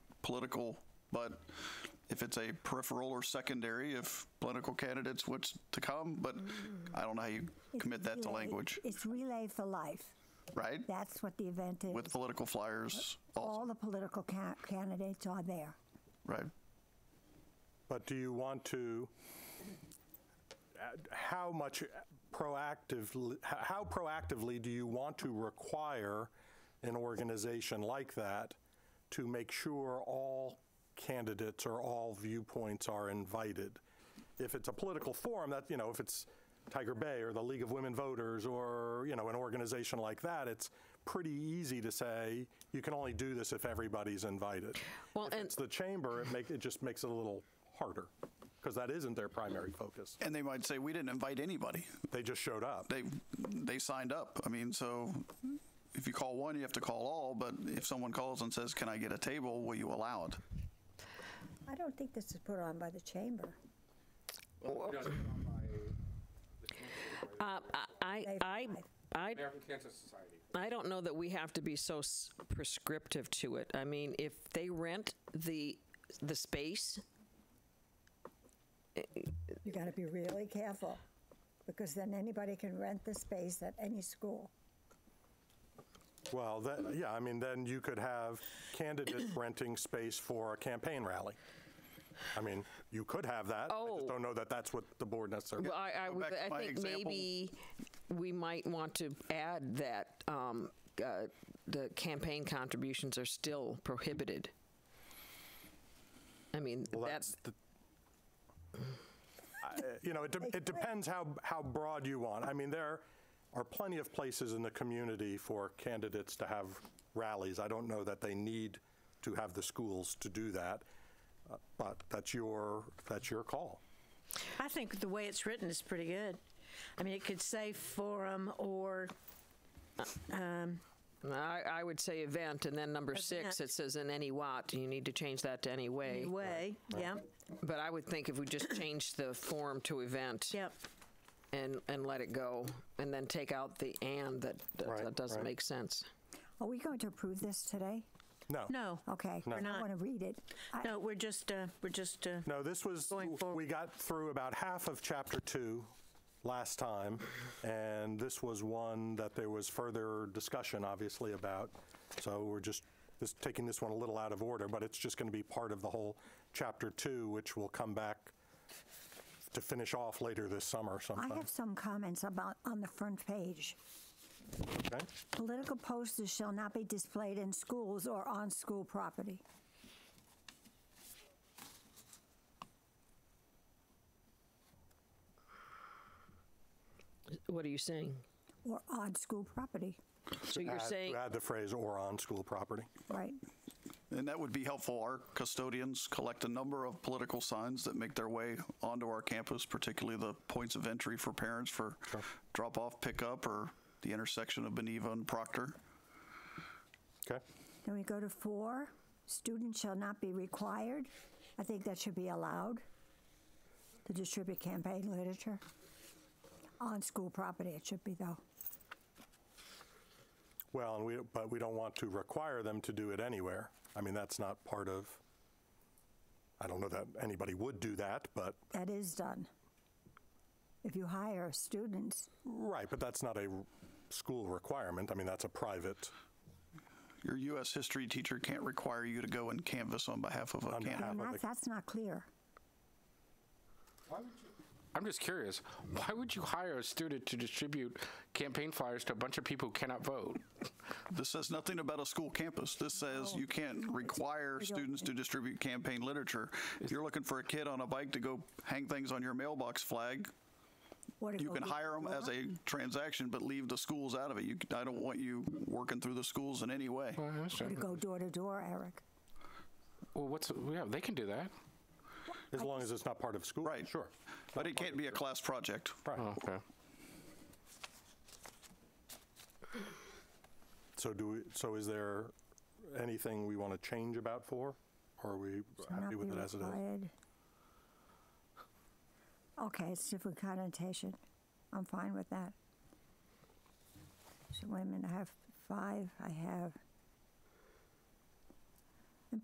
political, but if it's a peripheral or secondary, if political candidates what's to come, but I don't know how you It's commit that to Relay- language, It's Relay for Life. right? That's what the event is. With political flyers, also, All the political ca- candidates are there. right? But do you want to, uh, how much proactively, h- how proactively do you want to require an organization like that to make sure all candidates or all viewpoints are invited? If it's a political forum, that, you know, if it's Tiger Bay or the League of Women Voters or, you know, an organization like that, it's pretty easy to say, you can only do this if everybody's invited. Well, If and- it's the chamber, it make, it just makes it a little harder, because that isn't their primary focus. And they might say, we didn't invite anybody. They just showed up. They, they signed up. I mean, so if you call one, you have to call all, but if someone calls and says, can I get a table, will you allow it? I don't think this is put on by the chamber. Uh, I, They've I, tried. I, American Cancer Society. I don't know that we have to be so s- prescriptive to it. I mean, if they rent the, the space, You got to be really careful because then anybody can rent the space at any school. Well, that, yeah, I mean, then you could have candidates renting space for a campaign rally. I mean, you could have that. I Oh. just don't know that that's what the board necessarily. well, I, I, go would- back to I my think example. maybe we might want to add that um, uh, the campaign contributions are still prohibited. I mean, Well, that's, the- I- You know, it, de- it depends how, how broad you want. I mean, there are plenty of places in the community for candidates to have rallies. I don't know that they need to have the schools to do that, uh, but that's your, that's your call. I think the way it's written is pretty good. I mean, it could say forum or, um, I, I would say event, and then number six, Event. it says in any what, you need to change that to any way. way, yeah, But I would think if we just change the form to event. yep. and and let it go, and then take out the and that that, Right, that doesn't right. make sense. Are we going to approve this today? No. No, Okay. No. I Not- want to read it. I- no, we're just, uh, we're just, uh, No, this was, Going forward. we got through about half of chapter two last time, and this was one that there was further discussion, obviously, about. So we're just, this, taking this one a little out of order, but it's just going to be part of the whole chapter two, which will come back to finish off later this summer I sometime. have some comments about, on the front page. Okay? Political posters shall not be displayed in schools or on school property. What are you saying? Or on school property, So you're Add- saying Add the phrase "or on school property." right? And that would be helpful. Our custodians collect a number of political signs that make their way onto our campus, particularly the points of entry for parents for drop off, pickup, or the intersection of Beneva and Proctor. Okay? Then we go to four, students shall not be required. I think that should be allowed to distribute campaign literature. On school property, it should be though. Well, and we, but we don't want to require them to do it anywhere. I mean, that's not part of, I don't know that anybody would do that, but, That is done. If you hire students, right, but that's not a r- school requirement. I mean, that's a private, Your U.S. history teacher can't require you to go and canvass on behalf of a On candidate. behalf- and but that, the- that's not clear. I'm just curious. Why would you hire a student to distribute campaign flyers to a bunch of people who cannot vote? This says nothing about a school campus. This says you can't require students to distribute campaign literature. If you're looking for a kid on a bike to go hang things on your mailbox flag, Or to You go can get hire them as a transaction, but leave the schools out of it. You, c- I don't want you working through the schools in any way. Well, I To understand. go door to door, Eric. Well, what's yeah? They can do that. as long as it's not part of school. Right. Sure. But it can't be a class project. Right. Oh, Okay. So do we, so is there anything we want to change about four? Or are we Shall not happy be with it as it is? required. Okay, it's different connotation. I'm fine with that. So wait a minute, I have five, I have